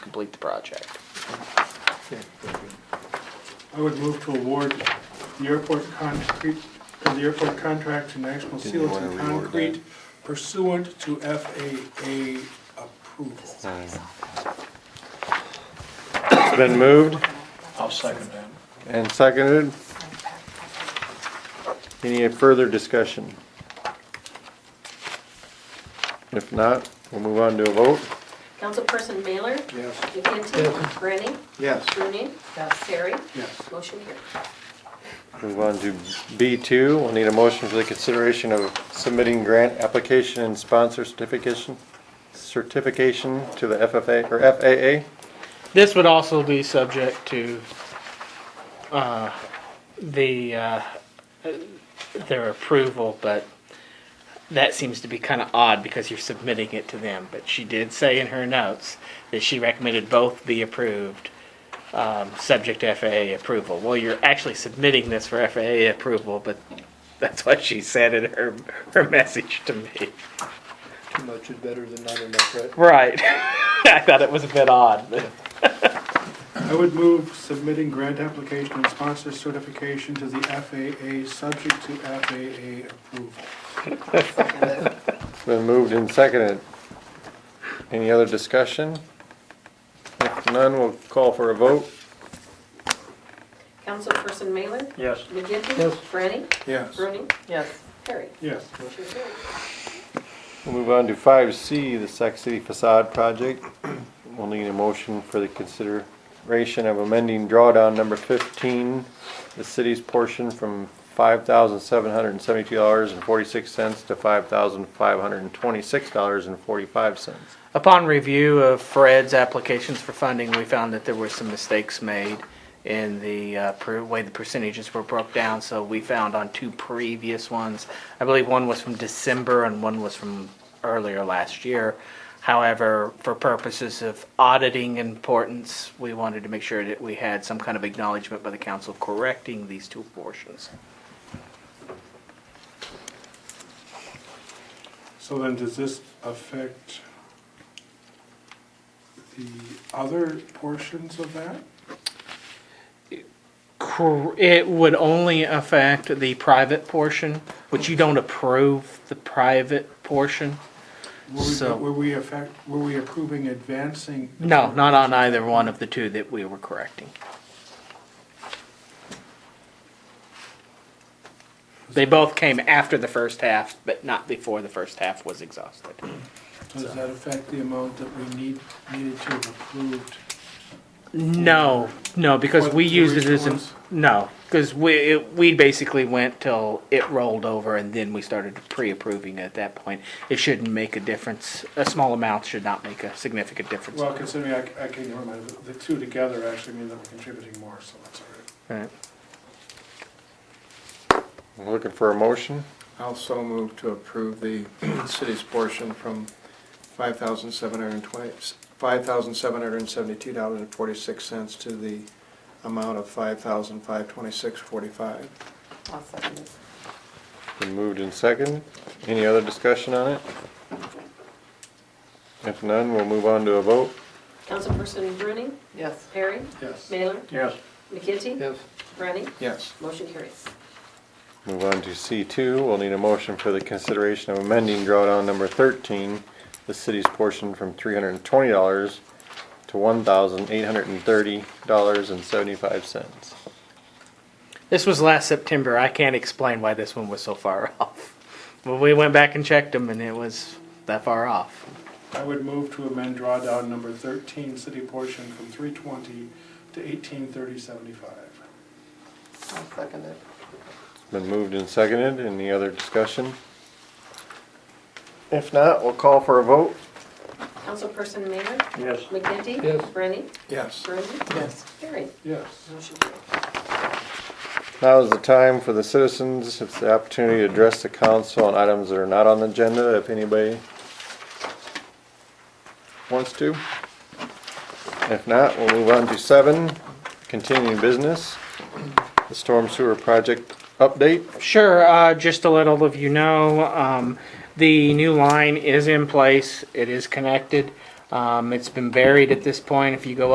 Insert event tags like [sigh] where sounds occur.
complete the project. I would move to award the airport concrete, uh, the airport contract to National Didn't Seals wanna and reword Concrete that. pursuant to FAA approval. It's been moved I'll second that. and seconded. Any further discussion? If not, we'll move on to a vote. Councilperson Mailer? Yes. McGinty? Brennan? Yes. Rooney? Terry? Yes. Motion carried. Move on to B2. We'll need a motion for the consideration of submitting grant application and sponsor certification, certification to the FFA, or FAA. This would also be subject to uh, the uh, their approval, but that seems to be kind of odd because you're submitting it to them. But she did say in her notes that she recommended both be approved, um, subject to FAA approval. Well, you're actually submitting this for FAA approval, but that's what she said in her her message to me. Too much is better than not enough, right? Right. [laughs] I thought it was a bit odd. But. I would move submitting grant application and sponsor certification to the FAA, subject to FAA approval. It's been moved and seconded. Any other discussion? If none, we'll call for a vote. Councilperson Mailer? Yes. McGinty? Yes. Brennan? Yes. Rooney? Yes. Terry? Yes. Motion carried. We'll move on to five C, the Sac City facade project. [clears throat] We'll need a motion for the consideration of amending drawdown number fifteen, the city's portion from five thousand seven hundred and seventy-two dollars and forty-six cents to five thousand five hundred and twenty-six dollars and forty-five cents. Upon review of Fred's applications for funding, we found that there were some mistakes made in the uh, per- way the percentages were broke down. So we found on two previous ones, I believe one was from December and one was from earlier last year. However, for purposes of auditing importance, we wanted to make sure that we had some kind of acknowledgement by the council correcting these two portions. So then does this affect the other portions of that? Cor- It would only affect the private portion, which you don't approve the private portion. Were So- we, were we affect, were we approving advancing? No, not on either one of the two that we were correcting. They both came after the first half, but not before the first half was exhausted. Does that affect the amount that we need, needed to have approved? No, no, because What, we the used it as, a- original no, because we, it- we basically went till it rolled over and then we started pre-approving at that point. It shouldn't make a difference, a small amount should not make a significant difference. Well, considering I, I can, never mind, the- the two together actually mean that we're contributing more, so that's all right. Right. Looking for a motion? Also move to approve the [clears throat] city's portion from five thousand seven hundred and twenty, five thousand seven hundred and seventy-two dollars and forty-six cents to the amount of five thousand five twenty-six forty-five. Been moved and seconded. Any other discussion on it? If none, we'll move on to a vote. Councilperson Rooney? Yes. Perry? Yes. Mailer? Yes. McGinty? Yes. Brennan? Yes. Motion carries. Move on to C two, we'll need a motion for the consideration of amending drawdown number thirteen, the city's portion from three hundred and twenty dollars to one thousand eight hundred and thirty dollars and seventy-five cents. This was last September, I can't explain why this one was so far [laughs] off. But we went back and checked them and it was that far off. I would move to amend drawdown number thirteen, city portion from three twenty to eighteen thirty seventy-five. It's Been moved and seconded, any other discussion? If not, we'll call for a vote. Councilperson Mailer? Yes. McGinty? Yes. Brennan? Yes. Rooney? Yes. Terry? Yes. Motion carried. Now is the time for the citizens, it's the opportunity to address the council on items that are not on the agenda, if anybody wants to. If not, we'll move on to seven, continuing business, the storm sewer project update. Sure, uh, just to let all of you know, um, the new line is in place, it is connected. Um, it's been buried at this point. If you go